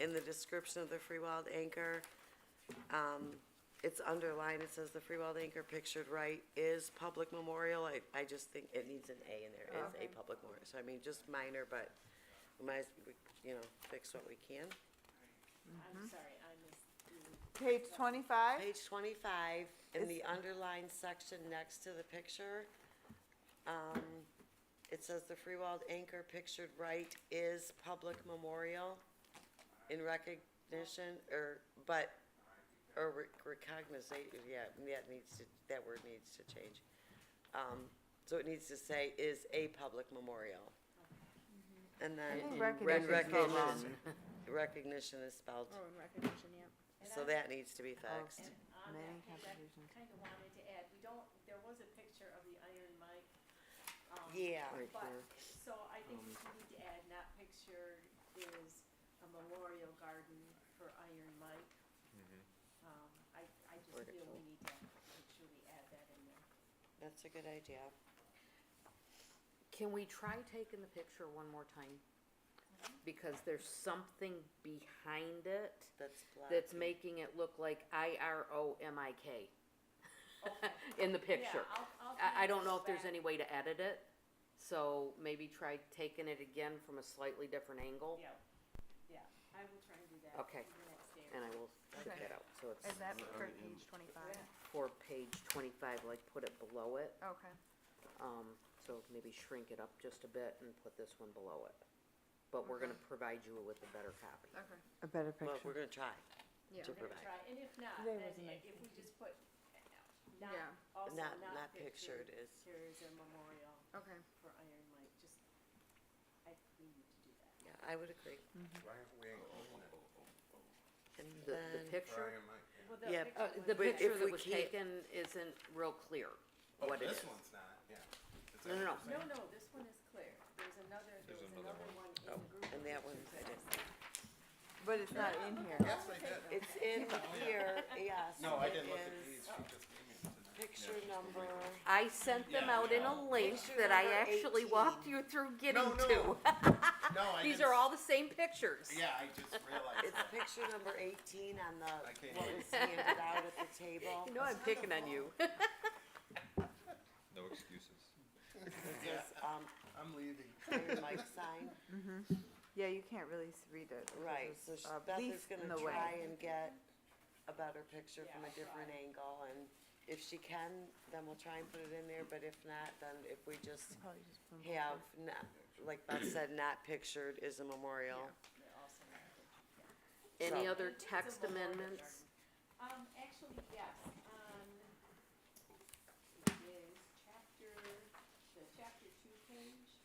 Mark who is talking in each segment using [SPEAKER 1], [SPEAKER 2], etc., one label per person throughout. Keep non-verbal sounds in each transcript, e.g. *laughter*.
[SPEAKER 1] in the description of the free wild anchor, um, it's underlined, it says the free wild anchor pictured right is public memorial. I, I just think it needs an A in there, is a
[SPEAKER 2] Okay.
[SPEAKER 1] public memorial. So I mean, just minor, but we might, as we, you know, fix what we can.
[SPEAKER 3] Mm-hmm.
[SPEAKER 4] I'm sorry, I missed. the-
[SPEAKER 2] Page twenty-five?
[SPEAKER 1] Page twenty-five, in the underlined section next to the picture, um, it says the free wild anchor pictured right is public memorial in recognition, or, but, or recognizate, yeah, that needs to, that word needs to change. Um, so it needs to say is a public memorial. And then, and
[SPEAKER 2] think recognition is spelled wrong.
[SPEAKER 1] recognition, recognition is spelled,
[SPEAKER 5] Oh, in recognition, yeah.
[SPEAKER 4] And
[SPEAKER 1] so
[SPEAKER 4] I-
[SPEAKER 1] that needs to be fixed.
[SPEAKER 4] And on that
[SPEAKER 2] Many
[SPEAKER 4] page,
[SPEAKER 2] complications.
[SPEAKER 4] I kind of wanted to add, we don't, there was a picture of the Iron Mike. um,
[SPEAKER 1] Yeah.
[SPEAKER 4] But,
[SPEAKER 1] Right
[SPEAKER 4] so I
[SPEAKER 3] Um,
[SPEAKER 4] think we need to add, not picture is a memorial garden for Iron Mike. Um, I, I just
[SPEAKER 1] Word it
[SPEAKER 4] feel we
[SPEAKER 1] out.
[SPEAKER 4] need to make sure we add that in there.
[SPEAKER 1] That's a good idea.
[SPEAKER 3] Can we try taking the picture one more time? Because there's something behind it
[SPEAKER 1] That's black.
[SPEAKER 3] that's making it look like I R O M I K *laughs* in the picture.
[SPEAKER 4] Yeah, I'll, I'll.
[SPEAKER 3] I, I
[SPEAKER 4] kinda
[SPEAKER 3] don't know
[SPEAKER 4] go
[SPEAKER 3] if there's
[SPEAKER 4] back.
[SPEAKER 3] any way to edit it, so maybe try taking it again from a slightly different angle.
[SPEAKER 4] Yeah, yeah, I will try and do that.
[SPEAKER 3] Okay.
[SPEAKER 4] the next day.
[SPEAKER 3] And I will check
[SPEAKER 2] Okay.
[SPEAKER 3] that out, so
[SPEAKER 5] Is
[SPEAKER 3] it's
[SPEAKER 5] that for page twenty-five?
[SPEAKER 3] for page twenty-five, like put it below it,
[SPEAKER 5] Okay.
[SPEAKER 3] um, so maybe shrink it up just a bit and put this one below it. But we're gonna provide you with a better copy.
[SPEAKER 5] Okay.
[SPEAKER 2] A better
[SPEAKER 1] Well, we're
[SPEAKER 2] picture.
[SPEAKER 1] gonna try
[SPEAKER 5] Yeah.
[SPEAKER 1] to
[SPEAKER 4] We're gonna
[SPEAKER 1] provide.
[SPEAKER 4] try, and if not,
[SPEAKER 2] Today
[SPEAKER 4] then
[SPEAKER 2] was a nice
[SPEAKER 4] i- if we just put, uh, not,
[SPEAKER 5] Yeah.
[SPEAKER 4] also
[SPEAKER 1] Not,
[SPEAKER 4] not pictured,
[SPEAKER 1] is,
[SPEAKER 4] here is a memorial
[SPEAKER 5] Okay.
[SPEAKER 4] for Iron Mike, just, I, we need to do that.
[SPEAKER 1] yeah, I would agree.
[SPEAKER 6] Why aren't we including it?
[SPEAKER 1] And
[SPEAKER 3] The, the
[SPEAKER 1] then,
[SPEAKER 3] picture?
[SPEAKER 6] Brian, Mike,
[SPEAKER 1] Yeah,
[SPEAKER 4] Well,
[SPEAKER 6] yeah.
[SPEAKER 4] picture would
[SPEAKER 3] Uh, the
[SPEAKER 4] be-
[SPEAKER 1] But
[SPEAKER 3] picture
[SPEAKER 1] if we
[SPEAKER 3] that was
[SPEAKER 1] can't-
[SPEAKER 3] taken isn't real clear
[SPEAKER 6] Oh,
[SPEAKER 3] what it is.
[SPEAKER 6] This one's not, yeah. Is that
[SPEAKER 3] No, no,
[SPEAKER 6] what
[SPEAKER 3] no.
[SPEAKER 6] you're
[SPEAKER 4] No, no,
[SPEAKER 6] saying?
[SPEAKER 4] this one is clear, there's another, there was
[SPEAKER 6] another
[SPEAKER 4] another one in
[SPEAKER 1] oh,
[SPEAKER 4] the group.
[SPEAKER 1] and that one's, it is.
[SPEAKER 2] But it's not in here.
[SPEAKER 6] Yes, I did.
[SPEAKER 1] it's
[SPEAKER 3] *laughs*
[SPEAKER 1] in here, yes.
[SPEAKER 6] No, I
[SPEAKER 1] it
[SPEAKER 6] didn't look at
[SPEAKER 1] is
[SPEAKER 6] these, she just gave me them tonight.
[SPEAKER 1] Picture number,
[SPEAKER 3] I sent them
[SPEAKER 6] Yeah,
[SPEAKER 3] out in a
[SPEAKER 6] no.
[SPEAKER 3] link
[SPEAKER 1] Picture
[SPEAKER 3] that I
[SPEAKER 1] number
[SPEAKER 3] actually
[SPEAKER 1] 18.
[SPEAKER 3] walked you through getting
[SPEAKER 6] No,
[SPEAKER 3] to.
[SPEAKER 6] no.
[SPEAKER 3] *laughs*
[SPEAKER 6] No, I
[SPEAKER 3] These
[SPEAKER 6] didn't
[SPEAKER 3] are
[SPEAKER 6] s-
[SPEAKER 3] all the same pictures.
[SPEAKER 6] Yeah, I
[SPEAKER 3] *laughs*
[SPEAKER 6] just realized.
[SPEAKER 1] it's
[SPEAKER 6] that.
[SPEAKER 1] picture number eighteen on
[SPEAKER 6] I
[SPEAKER 1] the,
[SPEAKER 6] can't
[SPEAKER 1] what
[SPEAKER 6] hear
[SPEAKER 1] was handed out at the table.
[SPEAKER 3] *laughs* You know I'm picking on you.
[SPEAKER 7] No excuses.
[SPEAKER 1] It says, um,
[SPEAKER 6] I'm leaving.
[SPEAKER 1] Iron Mike sign,
[SPEAKER 2] Yeah, you can't really s- read it. 'cause
[SPEAKER 1] right,
[SPEAKER 2] it's
[SPEAKER 1] so she-
[SPEAKER 3] Uh,
[SPEAKER 2] a
[SPEAKER 1] Beth
[SPEAKER 2] leaf
[SPEAKER 1] is gonna
[SPEAKER 2] in the way.
[SPEAKER 1] try and get a better picture
[SPEAKER 4] Yeah,
[SPEAKER 1] from a
[SPEAKER 4] I'll
[SPEAKER 1] different
[SPEAKER 4] try.
[SPEAKER 1] angle, and if she can, then we'll try and put it in there, but if not, then if we just
[SPEAKER 2] Probably just put 'em
[SPEAKER 1] have not, like Beth said, not pictured is a memorial.
[SPEAKER 4] They're also not pictured.
[SPEAKER 3] Any
[SPEAKER 1] So-
[SPEAKER 3] other
[SPEAKER 4] It's a
[SPEAKER 3] text
[SPEAKER 4] memorial
[SPEAKER 3] amendments?
[SPEAKER 4] garden. Um, actually, yes, um, it is chapter, the chapter two page.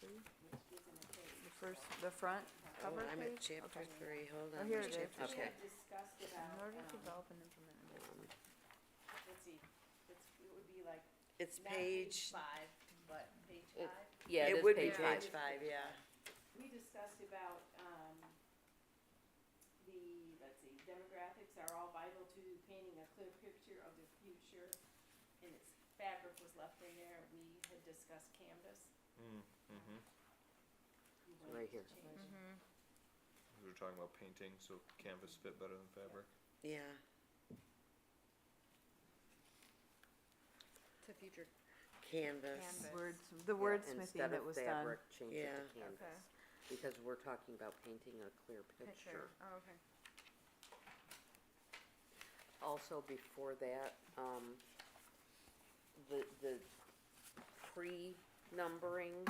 [SPEAKER 4] Which gives them a page.
[SPEAKER 2] The first, the front
[SPEAKER 1] Oh,
[SPEAKER 2] cover
[SPEAKER 1] I'm at
[SPEAKER 2] page?
[SPEAKER 1] chapter
[SPEAKER 2] Okay.
[SPEAKER 1] three, hold
[SPEAKER 2] Oh,
[SPEAKER 1] on.
[SPEAKER 2] here
[SPEAKER 1] there's
[SPEAKER 2] it is.
[SPEAKER 1] chapter
[SPEAKER 4] We
[SPEAKER 1] three.
[SPEAKER 4] had discussed
[SPEAKER 2] In
[SPEAKER 4] about,
[SPEAKER 2] order to
[SPEAKER 4] um,
[SPEAKER 2] develop and implement. a business
[SPEAKER 4] let's see, it's, it would be like,
[SPEAKER 1] It's
[SPEAKER 4] not page
[SPEAKER 1] page,
[SPEAKER 4] five, but page
[SPEAKER 3] It-
[SPEAKER 4] five.
[SPEAKER 3] Yeah, it
[SPEAKER 1] it
[SPEAKER 3] is
[SPEAKER 1] would be
[SPEAKER 3] page five.
[SPEAKER 1] page five, yeah.
[SPEAKER 4] We discussed about, um, the, let's see, demographics are all vital to painting a clear picture of the future. And its fabric was left in there, we had discussed canvas.
[SPEAKER 7] Mm-hmm.
[SPEAKER 4] We wanted
[SPEAKER 3] Right
[SPEAKER 4] to
[SPEAKER 3] here.
[SPEAKER 4] change it.
[SPEAKER 5] Mm-hmm.
[SPEAKER 7] We were talking about painting, so canvas fit better than fabric.
[SPEAKER 1] Yeah,
[SPEAKER 5] To future.
[SPEAKER 1] canvas.
[SPEAKER 5] Canvas.
[SPEAKER 2] Words, the wordsmithing that was done.
[SPEAKER 3] Instead of fabric, change it
[SPEAKER 1] Yeah.
[SPEAKER 3] to canvas. Because we're talking about painting a clear picture.
[SPEAKER 5] Oh, okay.
[SPEAKER 3] Also, before that, um, the, the pre-numbering,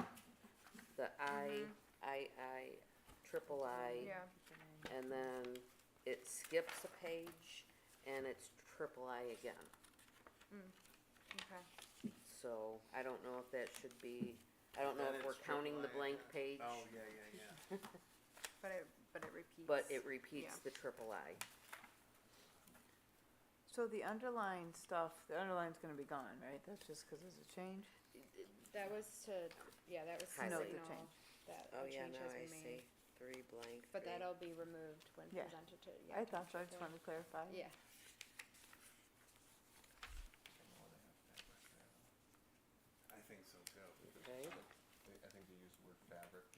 [SPEAKER 3] the I, I, I, triple I,
[SPEAKER 5] Yeah.
[SPEAKER 3] and then it skips a page, and it's triple I again.
[SPEAKER 5] Okay.
[SPEAKER 3] So, I don't know if that should be, I don't know
[SPEAKER 6] Then
[SPEAKER 3] if we're
[SPEAKER 6] it's triple
[SPEAKER 3] counting the
[SPEAKER 6] I
[SPEAKER 3] blank
[SPEAKER 6] again.
[SPEAKER 3] page,
[SPEAKER 6] Oh, yeah, yeah, yeah.
[SPEAKER 5] But it, but it repeats.
[SPEAKER 3] but it repeats the
[SPEAKER 5] Yeah.
[SPEAKER 3] triple I.
[SPEAKER 2] So the underlying stuff, the underline's gonna be gone, right? That's just because it's a change?
[SPEAKER 5] That was to, yeah, that was to
[SPEAKER 3] Highlight
[SPEAKER 2] the
[SPEAKER 5] signal
[SPEAKER 2] change.
[SPEAKER 5] that
[SPEAKER 1] Oh,
[SPEAKER 5] a
[SPEAKER 1] yeah,
[SPEAKER 5] change
[SPEAKER 1] now
[SPEAKER 5] has
[SPEAKER 1] I
[SPEAKER 5] been made.
[SPEAKER 1] see, three blank,
[SPEAKER 5] But
[SPEAKER 1] three.
[SPEAKER 5] that'll be removed when
[SPEAKER 2] Yeah.
[SPEAKER 5] presented to, yeah.
[SPEAKER 2] I thought so, I
[SPEAKER 5] to
[SPEAKER 2] just
[SPEAKER 5] the-
[SPEAKER 2] wanted to clarify.
[SPEAKER 5] Yeah.
[SPEAKER 6] I think so too.
[SPEAKER 3] Okay.